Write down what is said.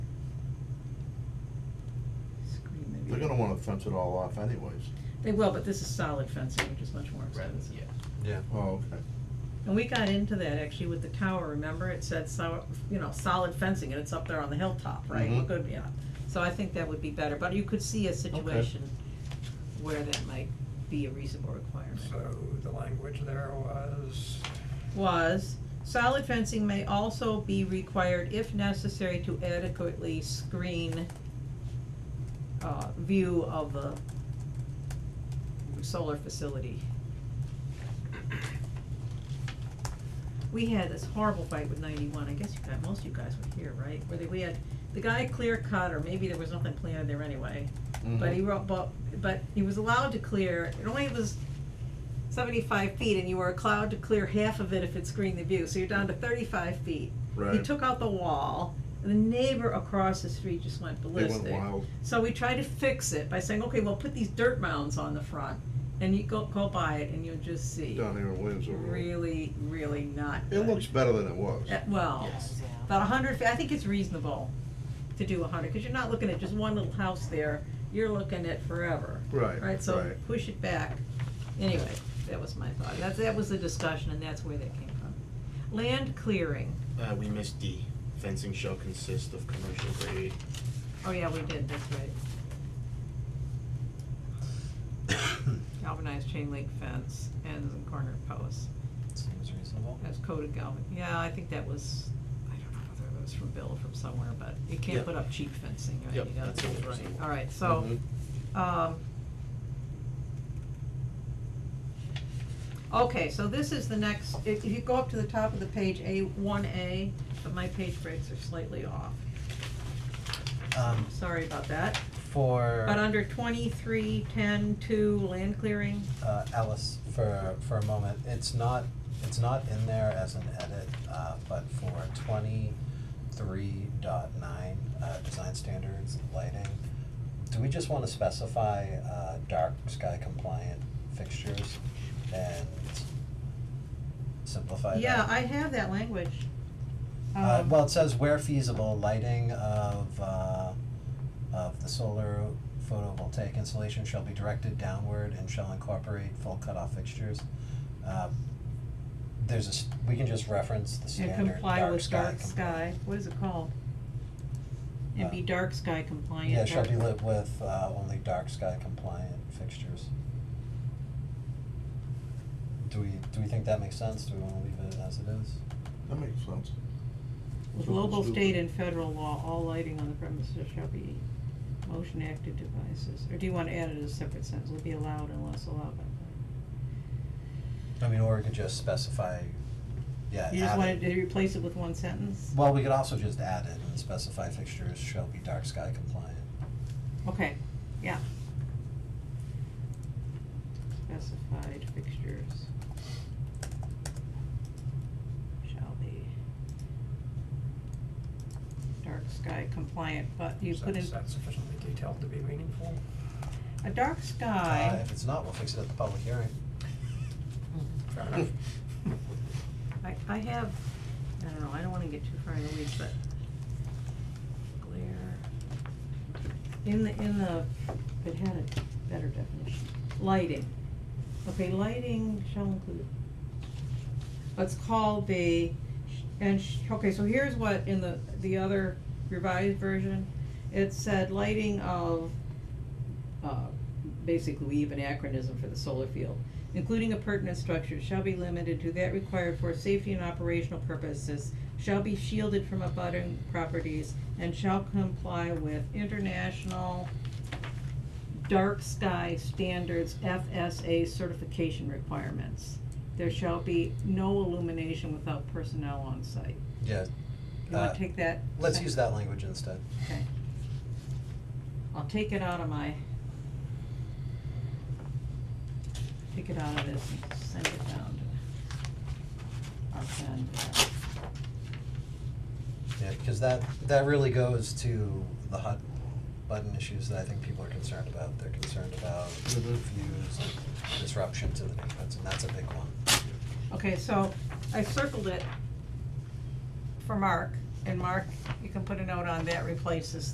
fence it all off anyways. They will, but this is solid fencing, which is much more rather, expensive. yeah. Yeah. Oh, okay. And we got into that actually with the tower, remember, it said so, you know, solid fencing, and it's up there on the hilltop, right, Mhm. good, yeah. So I think that would be better, but you could see a situation where that might be a reasonable requirement. So the language there was, was, solid fencing may also be required if necessary to adequately screen uh, view of the solar facility. We had this horrible fight with ninety-one, I guess you guys, most of you guys were here, right, where they, we had, the guy clear cut, or maybe there was nothing planted there anyway. But he wrote, but, but he was allowed to clear, it only was seventy-five feet, and you were allowed to clear half of it if it screened the view, so you're down to thirty-five feet. He Right. took out the wall, and the neighbor across the street just went They ballistic. went wild. So we tried to fix it by saying, okay, well, put these dirt mounds on the front, and you go, go by it, and you'll just see. down here in Williamsville. Road. Really, really not It good. looks better than it was. Uh, Well, Yes. about a hundred, fe- I think it's reasonable to do a hundred, cause you're not looking at just one little house there, you're looking at forever. Right, Right, so right. push it back. Anyway, that was my thought. That, that was the discussion and that's where that came from. Land clearing. Uh, we missed D, fencing shall consist of commercial grade, Oh, yeah, we did, that's right. Galvanized chain link fence, ends and corner posts. Seems reasonable. That's coated galvan, yeah, I think that was, I don't know whether it was from Bill or from somewhere, but you can't Yep. put up cheap fencing, right? Yep, You gotta that's do it what I'm right. saying. All right, so, um. Okay, so this is the next, if, if you go up to the top of the page, A, one A, but my page breaks are slightly off, Um, sorry about that. for, But under twenty-three, ten, two, land clearing, uh, Alice, for, for a moment, it's not, it's not in there as an edit, uh, but for twenty-three dot nine, uh, design standards, lighting, do we just wanna specify, uh, dark sky compliant fixtures and simplify that? yeah, I have that language. Uh, Um, well, it says where feasible, lighting of, uh, of the solar photovoltaic installation shall be directed downward and shall incorporate full cutoff fixtures. Uh, There's a, s- we can just reference the And standard comply dark with sky. dark com- sky, what is it called? And be Uh, dark sky compliant. Yeah, shall dark- be lit with, uh, only dark sky compliant fixtures. Do we, do we think that makes sense? Do we wanna leave it as it is? That makes sense. With local, state, and federal law, all lighting on the premises shall be motion active devices, or do you wanna add it as a separate sentence, will be allowed unless allowed by. I mean, or we could just specify, yeah, You just Uh, add wanted it. to replace it with one sentence? Well, we could also just add it and specify fixtures shall be dark sky compliant. Okay, yeah. Specified fixtures. Shall be. Dark sky compliant, but you is put that in, is that sufficiently detailed to be meaningful? a dark Uh, sky, if it's not, we'll fix it at the public hearing. Fair enough. I, I have, I don't know, I don't wanna get too far in the weeds, but. Glare. In the, in the, it had a better definition, lighting. Okay, lighting shall include. Let's call the, and, sh- okay, so here's what in the, the other revised version, it said lighting of, uh, basically we have an acronym for the solar field, including appurtenant structures shall be limited to that required for safety and operational purposes, shall be shielded from abutting properties, and shall comply with international dark sky standards FSA certification requirements. There shall be no illumination without personnel on site. Yeah, You wanna Uh, take that? let's sec- use that language instead. Okay. I'll take it out of my. Take it out of this and send it down to our friend. uh, Yeah, because that, that really goes to the hot button issues that I think people are concerned about. They're concerned about Mhm. views, and disruption to the neighborhoods, and that's a big one. Okay, so I circled it for Mark, and Mark, you can put a note on that replaces